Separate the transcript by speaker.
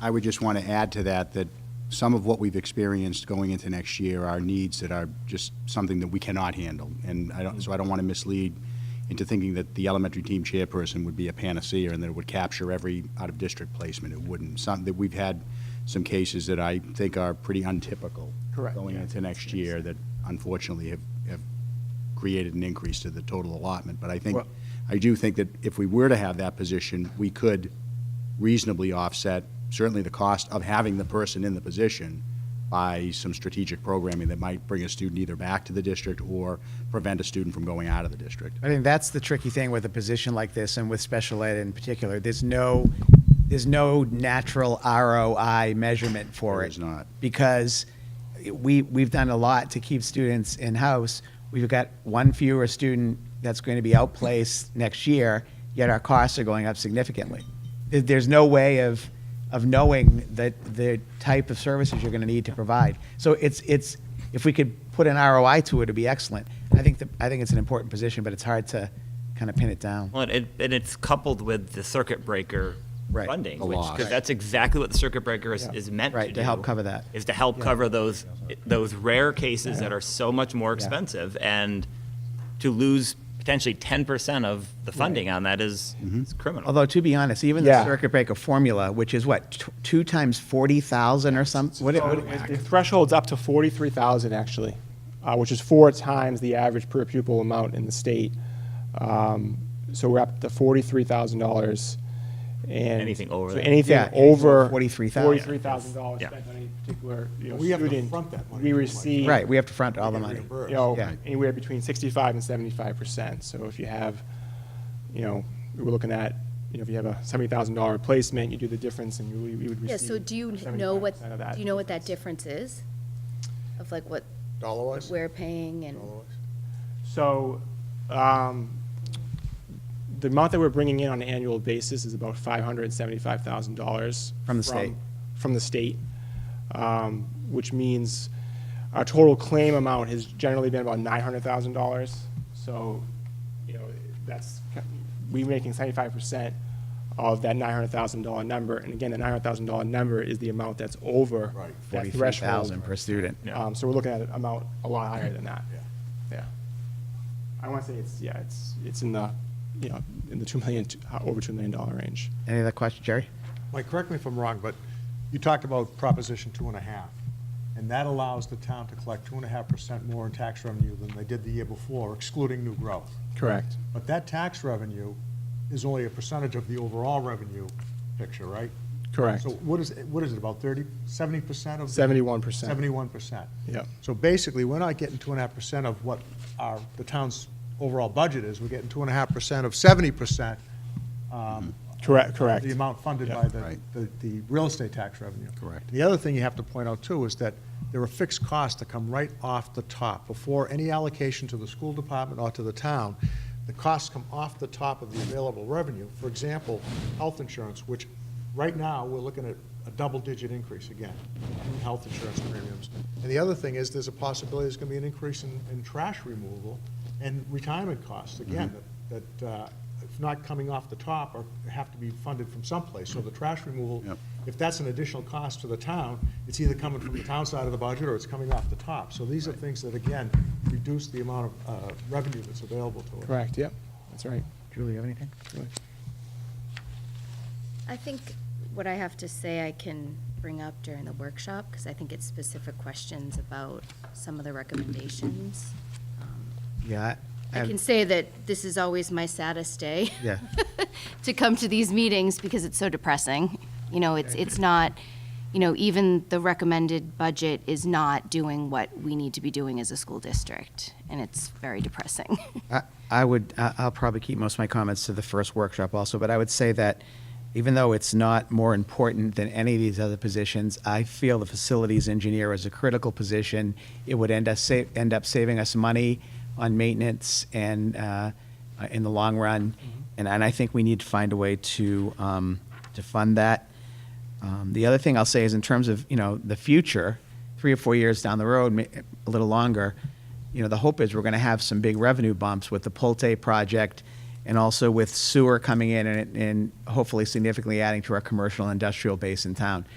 Speaker 1: I would just want to add to that, that some of what we've experienced going into next year are needs that are just something that we cannot handle. And I don't, so I don't want to mislead into thinking that the elementary team chairperson would be a panacea and that it would capture every out-of-district placement. It wouldn't. Some, that we've had some cases that I think are pretty untypical.
Speaker 2: Correct,
Speaker 1: Going
Speaker 2: yeah.
Speaker 1: into next year that unfortunately have, have created an increase to the total allotment. But I think,
Speaker 2: Well-
Speaker 1: I do think that if we were to have that position, we could reasonably offset certainly the cost of having the person in the position by some strategic programming that might bring a student either back to the district or prevent a student from going out of the district.
Speaker 2: I think that's the tricky thing with a position like this and with special ed in particular. There's no, there's no natural ROI measurement for
Speaker 1: There
Speaker 2: it.
Speaker 1: is not.
Speaker 2: Because we, we've done a lot to keep students in-house. We've got one fewer student that's going to be outplaced next year, yet our costs are going up significantly. There- There's no way of, of knowing that the type of services you're going to need to provide. So it's, it's, if we could put an ROI to it, it'd be excellent. I think, the, I think it's an important position, but it's hard to kind of pin it down.
Speaker 3: Well, and, it, and it's coupled with the circuit breaker
Speaker 2: Right.
Speaker 3: funding,
Speaker 1: The
Speaker 3: which
Speaker 1: loss.
Speaker 3: because that's exactly what the circuit breaker is,
Speaker 2: Yeah.
Speaker 3: is meant
Speaker 2: Right,
Speaker 3: to,
Speaker 2: to help
Speaker 3: do,
Speaker 2: cover that.
Speaker 3: Is to help cover those those rare cases that are so much more expensive, and to lose potentially ten percent of the funding on that is-
Speaker 2: Mm-hmm.
Speaker 3: is criminal.
Speaker 2: Although to be honest, even the
Speaker 4: Yeah.
Speaker 2: circuit breaker formula, which is what t- two times forty thousand or something, what, it- what it-
Speaker 4: The threshold's up to 43,000 actually, uh, which is four times the average per pupil amount in the state. Um, So we're up to $43,000 and.
Speaker 3: Anything over
Speaker 4: so
Speaker 3: that.
Speaker 4: Anything
Speaker 2: Yeah, anything
Speaker 4: over.
Speaker 2: $43,000.
Speaker 4: $43,000
Speaker 3: Yeah.
Speaker 4: spent on any particular, you know,
Speaker 5: We have to
Speaker 4: student,
Speaker 5: front that money
Speaker 4: We
Speaker 5: pretty much.
Speaker 4: receive.
Speaker 2: right? We have to front all the money.
Speaker 5: Reimburse.
Speaker 4: you know,
Speaker 2: Yeah.
Speaker 4: anywhere between 65 and 75%. So if you have, you know, we're looking at, you know, if you have a $70,000 replacement, you do the difference and you we would receive.
Speaker 6: Yeah, so do you know what,
Speaker 4: 75% of that
Speaker 6: do you know what that
Speaker 4: difference.
Speaker 6: difference is? Of like what
Speaker 5: Dollar-wise?
Speaker 6: we're paying and,
Speaker 4: Oh. So, um, the amount that we're bringing in on an annual basis is about five hundred and seventy-five thousand dollars.
Speaker 2: From the state.
Speaker 4: From the state, um, which means our total claim amount has generally been about nine hundred thousand dollars. So, you know, that's, we're making seventy-five percent of that nine hundred thousand dollar number. And again, the nine hundred thousand dollar number is the amount that's over
Speaker 5: Right.
Speaker 4: that
Speaker 2: Forty-three thousand
Speaker 4: threshold.
Speaker 2: per student.
Speaker 3: Yeah.
Speaker 4: Um, so we're looking at an amount a lot higher than that.
Speaker 5: Yeah.
Speaker 4: Yeah. I want to say it's, yeah, it's, it's in the, you know, in the two million, to- uh, over two million dollar range.
Speaker 2: Any other questions, Jerry?
Speaker 5: Mike, correct me if I'm wrong, but you talked about Proposition two and a half, and that allows the town to collect two and a half percent more in tax revenue than they did the year before, excluding new growth.
Speaker 4: Correct.
Speaker 5: But that tax revenue is only a percentage of the overall revenue picture, right?
Speaker 4: Correct.
Speaker 5: So what is, what is it, about 30, 70 percent of? the-
Speaker 4: 71%.
Speaker 5: 71 percent.
Speaker 4: Yep.
Speaker 5: So basically, we're not getting two and a half percent of what our, the town's overall budget is. We're getting two and a half percent of 70 percent. um,
Speaker 4: Correct, correct.
Speaker 5: The amount funded
Speaker 4: Yeah.
Speaker 5: by the,
Speaker 1: Right.
Speaker 5: the, the real estate tax revenue.
Speaker 1: Correct.
Speaker 5: The other thing you have to point out too is that there are fixed costs that come right off the top. Before any allocation to the school department or to the town, the costs come off the top of the available revenue. For example, health insurance, which right now, we're looking at a double-digit increase again in health insurance premiums. And the other thing is, there's a possibility there's gonna be an increase in, in trash removal and retirement costs, again, that, that, uh, if not coming off the top, or have to be funded from someplace. So the trash removal,
Speaker 1: Yep.
Speaker 5: if that's an additional cost to the town, it's either coming from the town side of the budget or it's coming off the top. So these are things that, again, reduce the amount of uh, revenue that's available to us.
Speaker 4: Correct, yep, that's right.
Speaker 2: Julie, you have anything?
Speaker 6: I think what I have to say I can bring up during the workshop, because I think it's specific questions about some of the recommendations. Um,
Speaker 2: Yeah. I-
Speaker 6: I can say that this is always my saddest day.
Speaker 2: Yeah.
Speaker 6: to come to these meetings because it's so depressing. You know, it's, it's not, you know, even the recommended budget is not doing what we need to be doing as a school district, and it's very depressing.
Speaker 2: I- I would, I- I'll probably keep most of my comments to the first workshop also, but I would say that even though it's not more important than any of these other positions, I feel the facilities engineer is a critical position. It would end us, sa- end up saving us money on maintenance and uh, uh, in the long run. And, and I think we need to find a way to, um, to fund that. Um, the other thing I'll say is in terms of, you know, the future, three or four years down the road, ma- a little longer, you know, the hope is we're going to have some big revenue bumps with the Polte project and also with sewer coming in and, and hopefully significantly adding to our commercial and industrial base in town.